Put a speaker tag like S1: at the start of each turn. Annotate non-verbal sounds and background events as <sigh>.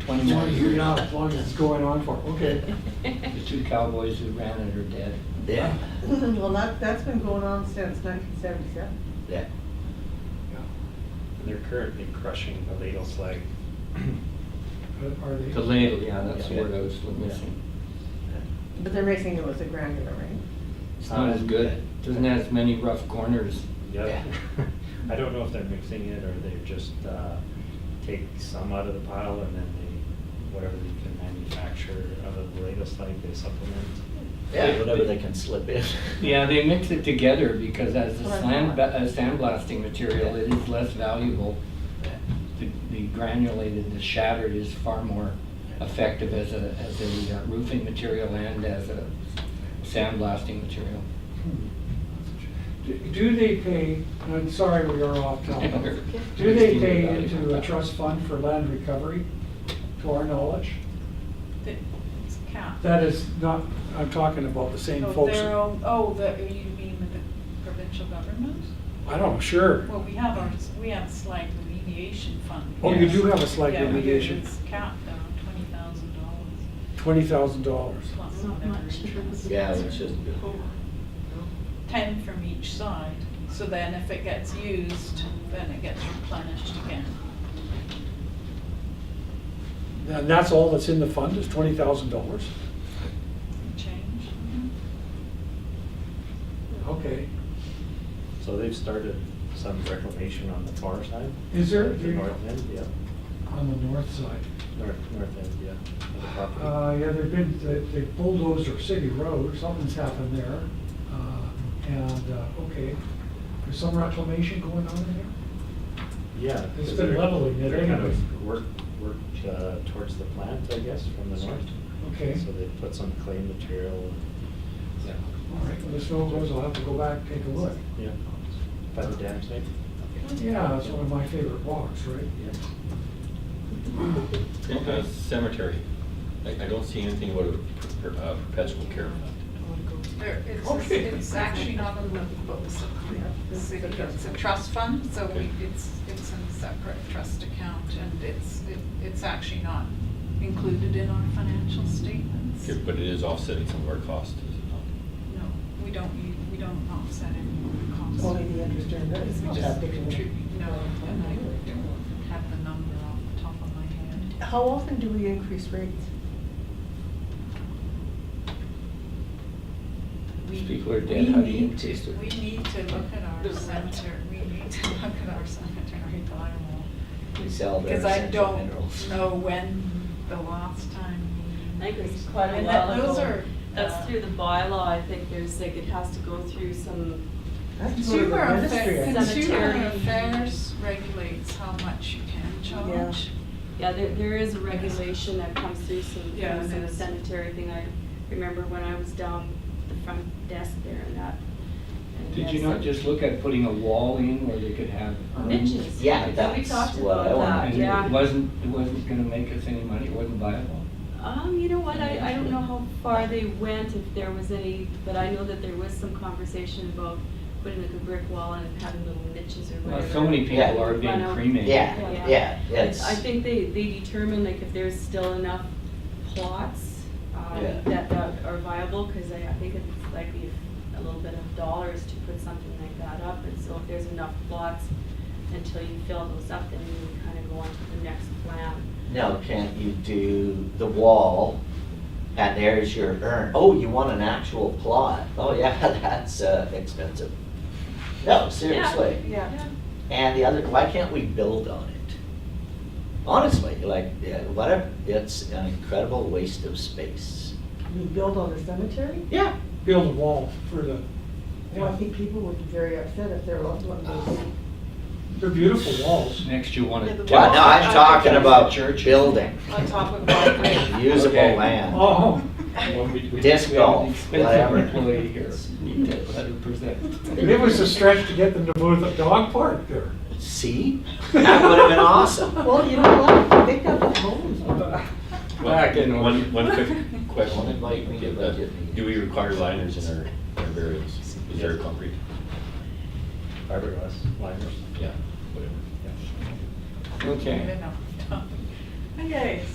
S1: Twenty more
S2: You're
S1: years.
S2: not as long as it's going on for, okay.
S1: The two cowboys who ran it are dead.
S3: Yeah,
S4: <laughs> Well, that, that's been going on since nineteen seventy-seven.
S3: yeah.
S5: They're currently crushing the ladle slag.
S2: But Are
S1: The
S2: they,
S1: ladle, yeah, that's the word I was missing.
S4: But they're making it with a granular, right?
S1: It's not as good, doesn't have as many rough corners.
S5: Yep.
S3: Yeah.
S5: <laughs> I don't know if they're mixing it or they just uh, take some out of the pile and then they, whatever they can manufacture out of the ladle slag, they supplement.
S3: Yeah, whatever they can slip in.
S1: Yeah, they mix it together because as a
S4: That's what I
S1: sand,
S4: thought.
S1: a sandblasting material, it is less valuable.
S3: Yeah.
S1: The the granulated, the shattered is far more effective as a, as a uh, roofing material and as a sandblasting material.
S2: do- do they pay, and I'm sorry we are off
S1: Oh. <laughs>
S2: topic. Do they pay into a trust fund for land recovery, to our knowledge?
S6: That- It's cap.
S2: That is not, I'm talking about the same
S6: So
S2: folks.
S6: they're all- Oh, the, you mean with the provincial government?
S2: I don't, know, sure.
S6: Well, we have our, we have slight remediation fund.
S2: Oh, you do have a slight
S6: Yeah, we do.
S2: remediation.
S6: It's capped around twenty thousand dollars
S2: Twenty thousand dollars.
S6: plus
S7: Not
S6: whatever
S7: much.
S6: interest.
S3: Yeah, which is,
S6: Ten from each side, so then if it gets used, then it gets replenished again.
S2: And that's all that's in the fund, is twenty thousand dollars?
S6: Change?
S2: Okay.
S5: So they've started some reclamation on the far side.
S2: Is there-
S5: The north end, yeah.
S2: On the north side.
S5: North, north end, yeah. of the property.
S2: Uh, yeah, there've been, they- they bulldozed our city road, something's happened there. Uh, And, uh, okay, there's some reclamation going on in there?
S5: Yeah.
S2: It's
S5: 'cause
S2: been
S5: they're-
S2: leveling it
S5: They're kind
S2: anyways.
S5: of worked, worked uh, towards the plant, I guess, from the north.
S2: Okay,
S5: So they put some clay material. and-
S2: all right, when the snow goes, I'll have to go back and take a look.
S5: Yeah. By the dam site.
S2: Yeah, that's one of my favorite walks, right?
S8: Uh, Cemetery, I, I don't see anything about a per- uh, perpetual care fund.
S9: There, it's,
S2: Okay.
S9: it's actually not on the books of the city, it's a trust fund, so we, it's, it's in a separate trust account, and it's, it- it's actually not included in our financial statements.
S8: Okay, But it is offsetting some of our costs, is it not?
S9: No, we don't, u- we don't offset any of the costs.
S4: Only the interest earned, that is
S9: We
S4: not
S9: just
S4: that big of a-
S9: contribute, no, and I don't have the number off the top of my head.
S4: How often do we increase rates?
S9: We-
S1: These people are dead, how do you
S9: we need to-
S1: increase their-
S9: We need to look at our cemetery, we need to <laughs> look at our cemetery bylaw.
S3: we sell their
S9: Because I
S3: essential
S9: don't
S3: minerals.
S9: know when the last time.
S7: I think it's quite a
S9: And that-
S7: while
S9: Those
S7: ago.
S9: are.
S7: That's
S9: uh,
S7: through the bylaw, I think there's like, it has to go through some,
S4: That's sort of
S9: Consumer
S4: administrative.
S9: affairs, consumer
S7: Cemetery.
S9: affairs regulates how much you can charge.
S7: yeah, there, there is a regulation that comes through some,
S9: Yeah,
S7: things in the
S9: that's-
S7: cemetery thing. I remember when I was down the front desk there and that. and
S1: Did you
S7: that's-
S1: not just look at putting a wall in where they could have? urns?
S7: Benches.
S3: Yeah,
S7: We
S3: that's
S7: talked
S3: what
S7: about
S3: I wanted
S7: that,
S1: And
S7: uh, Yeah.
S1: it wasn't, it wasn't gonna make us any money, it wasn't viable.
S7: Um, you know what, I, I don't know how far they went, if there was any, but I know that there was some conversation about putting like a brick wall and having little niches or
S1: Well,
S7: whatever.
S1: So many
S3: Yeah.
S1: people are
S7: Run
S1: being
S7: out.
S1: cremated.
S3: Yeah,
S7: Yeah.
S3: yeah,
S7: But
S3: it's.
S7: I think they, they determine like if there's still enough plots, um,
S3: Yeah.
S7: that, that are viable, cause I, I think it's likely a little bit of dollars to put something like that up, and so if there's enough plots until you fill those up, then you kind of go on to the next plan.
S3: Now, can't you do the wall and there's your urn? Oh, you want an actual plot? Oh, yeah, <laughs> that's uh, expensive. No, seriously.
S4: Yeah.
S3: And the other, why can't we build on it? Honestly, like, yeah, whatever, it's an incredible waste of space.
S4: We build on the cemetery?
S3: Yeah.
S2: Build a wall for the,
S4: Well, I think people would be very upset if their loved one was.
S2: they're
S1: <laughs>
S2: beautiful walls.
S1: Next you want
S9: Yeah,
S1: to.
S9: the
S3: Well,
S9: Well,
S3: no, I'm talking about
S1: church.
S3: building,
S9: On top of my.
S3: usable
S1: Okay.
S3: land.
S9: <laughs>
S2: Oh,
S1: Well, we- we- we
S3: Disc
S1: have an
S3: golf,
S1: expensive
S3: whatever.
S1: Employee here, need to let her present.
S2: it was a stretch to get them to move the dog park there.
S1: <laughs>
S3: See? That would have
S2: <laughs>
S3: been awesome.
S4: Well, you know what, they got the homes.
S1: Back in order.
S8: One, one
S3: <laughs>
S8: quick
S3: Don't
S8: question. uh,
S3: invite me to budget meetings.
S8: Do we require liners in our, our burials? Is there concrete?
S5: Fiberglass liners.
S8: Yeah, whatever.
S9: <laughs>
S5: Yeah.
S1: Okay.
S9: Okay,